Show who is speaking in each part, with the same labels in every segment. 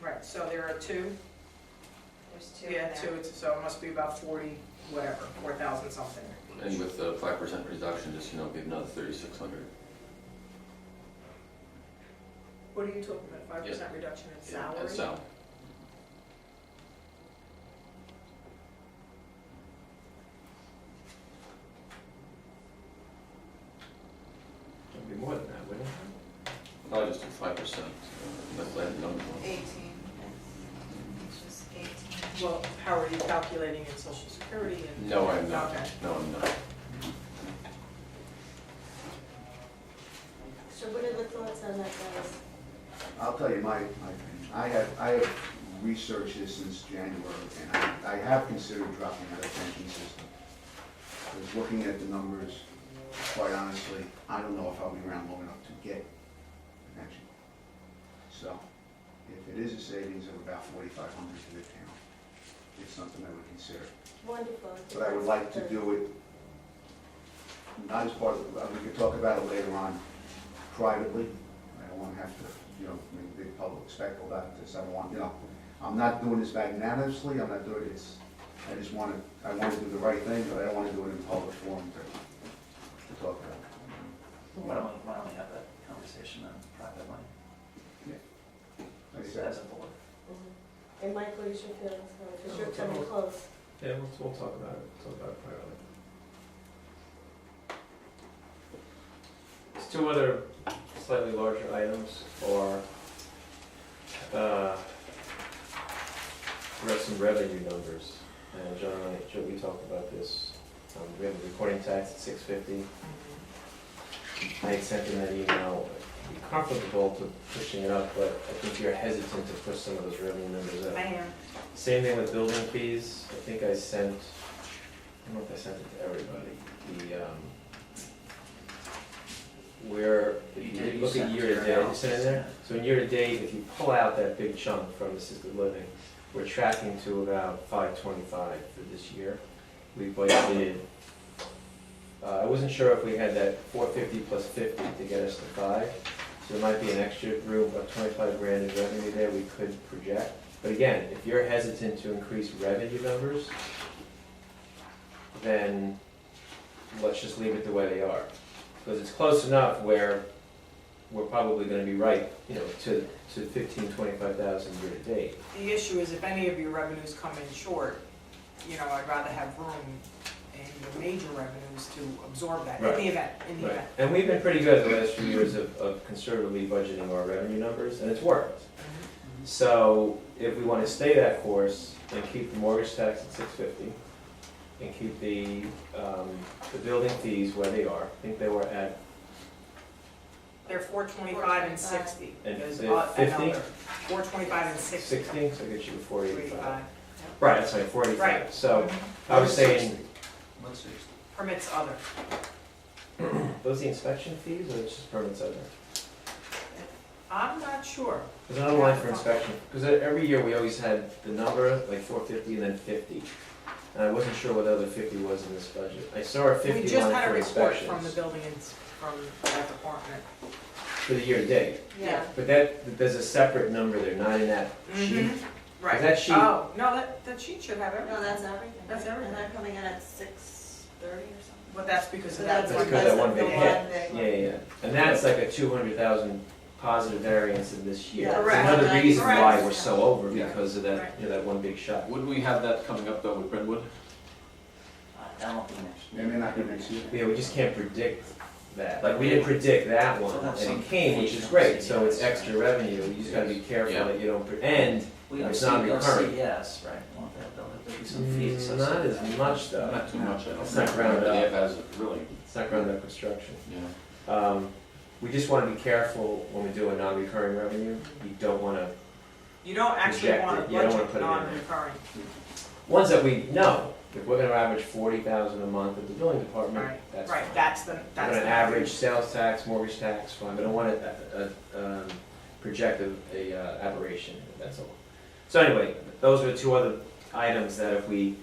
Speaker 1: Correct, so there are two?
Speaker 2: There's two in
Speaker 1: Yeah, two,
Speaker 2: there.
Speaker 1: it's- so it must be about forty, whatever, four thousand something.
Speaker 3: And with the five percent reduction, just, you know, give another thirty-six hundred.
Speaker 1: What are you talking about, five percent reduction in salary?
Speaker 3: And so,
Speaker 4: It'd be more than that, wouldn't it?
Speaker 3: no, just do five percent, uh, that's like the number one.
Speaker 2: Eighteen. It's just eighteen.
Speaker 1: Well, how are you calculating in social security and?
Speaker 3: No, I'm not,
Speaker 1: Okay.
Speaker 3: no, I'm not.
Speaker 5: So what are the thoughts on that, guys?
Speaker 6: I'll tell you my, my opinion. I have, I have researched this since January, and I, I have considered dropping out of pension system. Because looking at the numbers, quite honestly, I don't know if I'll be around long enough to get a pension. So, if it is a savings of about forty-five hundred to the town, it's something I would consider.
Speaker 5: Wonderful.
Speaker 6: But I would like to do it, not as part of, uh, we could talk about it later on privately. I don't want to have to, you know, make a big public spectacle about this, I don't want, you know, I'm not doing this magnanimously, I'm not doing this, I just want to, I want to do the right thing, but I don't want to do it in public forum to, to talk about.
Speaker 7: Why don't, we- why don't we have that conversation then privately,
Speaker 6: Like I said,
Speaker 7: as a board?
Speaker 5: Mhm. And Michael, you should feel, because you're coming close.
Speaker 4: Yeah, we'll, we'll talk about it, talk about it privately. There's two other slightly larger items are, uh, we have some revenue numbers. And John and I- Joe, we talked about this, um, we have a recording tax at six fifty. I had sent in that email, You're comfortable to pushing it up, but I think you're hesitant to push some of those revenue numbers up.
Speaker 2: I am.
Speaker 4: Same thing with building fees, I think I sent, I don't know if I sent it to everybody, the, um, where,
Speaker 7: You
Speaker 4: if
Speaker 7: did,
Speaker 4: you
Speaker 7: you
Speaker 4: look at
Speaker 7: sent
Speaker 4: year to
Speaker 7: your
Speaker 4: date, you
Speaker 7: analysis,
Speaker 4: sent it there?
Speaker 7: yeah.
Speaker 4: So in year to date, if you pull out that big chunk from assisted living, we're tracking to about five twenty-five for this year. We budgeted, uh, I wasn't sure if we had that four fifty plus fifty to get us to five, so there might be an extra room of twenty-five grand in revenue there we could project. But again, if you're hesitant to increase revenue numbers, then let's just leave it the way they are. Because it's close enough where we're probably gonna be right, you know, to, to fifteen, twenty-five thousand year to date.
Speaker 1: The issue is if any of your revenues come in short, you know, I'd rather have room in the major revenues to absorb that, in
Speaker 4: Right.
Speaker 1: the event, in the event.
Speaker 4: And we've been pretty good the last few years of, of conservatively budgeting our revenue numbers, and it's worked.
Speaker 1: Mm-hmm.
Speaker 4: So if we wanna stay that course and keep the mortgage tax at six fifty, and keep the, um, the building fees where they are, I think they were at,
Speaker 1: They're four twenty-five and sixty.
Speaker 4: And
Speaker 1: There's
Speaker 4: the
Speaker 1: a-
Speaker 4: 50?
Speaker 1: another. Four twenty-five and sixty.
Speaker 4: 60, so it gets you to 485.
Speaker 1: Forty-five.
Speaker 4: Right, that's like 45.
Speaker 1: Right.
Speaker 4: So I was saying,
Speaker 6: Let's see.
Speaker 1: Permits other.
Speaker 4: those the inspection fees or it's just permits other?
Speaker 1: I'm not sure.
Speaker 4: There's another line for inspection, because every year we always had the number, like 450 and then 50. And I wasn't sure what the other 50 was in this budget. I saw a 50
Speaker 1: We
Speaker 4: line
Speaker 1: just had a
Speaker 4: for
Speaker 1: report from the
Speaker 4: inspections
Speaker 1: building, ins- from that department.
Speaker 4: for the year to date.
Speaker 2: Yeah.
Speaker 4: But that, there's a separate number there, not in that sheet.
Speaker 1: Mhm. Right.
Speaker 4: Mm-hmm. that sheet-
Speaker 1: Oh, no, that, that sheet should have everything.
Speaker 2: No, that's everything.
Speaker 1: That's everything.
Speaker 2: And they're coming in at six thirty or something.
Speaker 1: But that's because
Speaker 2: So
Speaker 1: of that
Speaker 2: that's
Speaker 1: one.
Speaker 4: because of that one
Speaker 2: the
Speaker 4: big
Speaker 2: big
Speaker 4: Yeah,
Speaker 2: one.
Speaker 4: yeah, yeah. And that's like a 200,000 positive variance in this year.
Speaker 2: Yeah.
Speaker 4: It's
Speaker 1: Correct.
Speaker 4: Another reason why
Speaker 2: Correct.
Speaker 4: we're so over,
Speaker 6: Yeah.
Speaker 4: because of that, you know, that one big shot.
Speaker 3: Wouldn't we have that coming up though with Brentwood?
Speaker 7: Uh, That won't be next year.
Speaker 6: Maybe not the next year.
Speaker 4: Yeah, we just can't predict that. Like, we didn't predict that one, and it came, which is great, so it's extra revenue, you just gotta be careful that you don't, pre- and
Speaker 7: We don't
Speaker 4: It's
Speaker 7: see,
Speaker 4: not
Speaker 7: they'll
Speaker 4: recurring.
Speaker 7: see yes, right? Won't they? There'll there'll be some fees
Speaker 4: mm, not
Speaker 7: associated.
Speaker 4: as much though.
Speaker 3: Not too much, I don't
Speaker 4: It's
Speaker 3: think.
Speaker 4: not rounded
Speaker 3: Yeah,
Speaker 4: up.
Speaker 3: that's really,
Speaker 4: It's not ground up construction.
Speaker 3: yeah.
Speaker 4: Um, we just wanna be careful when we do a non-recurring revenue, you don't wanna,
Speaker 1: You don't actually
Speaker 4: Reject
Speaker 1: want
Speaker 4: it.
Speaker 1: to
Speaker 4: You don't wanna
Speaker 1: budget
Speaker 4: put it in there.
Speaker 1: non-recurring,
Speaker 4: ones that we know, if we're gonna average forty thousand a month at the building department,
Speaker 1: right?
Speaker 4: that's fine.
Speaker 1: Right, that's the,
Speaker 4: We're
Speaker 1: that's
Speaker 4: gonna
Speaker 1: the.
Speaker 4: average sales tax, mortgage tax, fine, but I want to, uh, um, project a, a uh, aberration, that's all. So anyway, those are two other items that if we,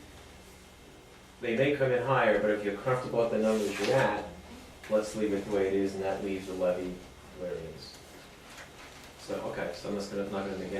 Speaker 4: they may come in higher, but if you're comfortable with the numbers you're at, let's leave it the way it is, and that leaves the levy where it is. So, okay, so I'm just gonna, not gonna make any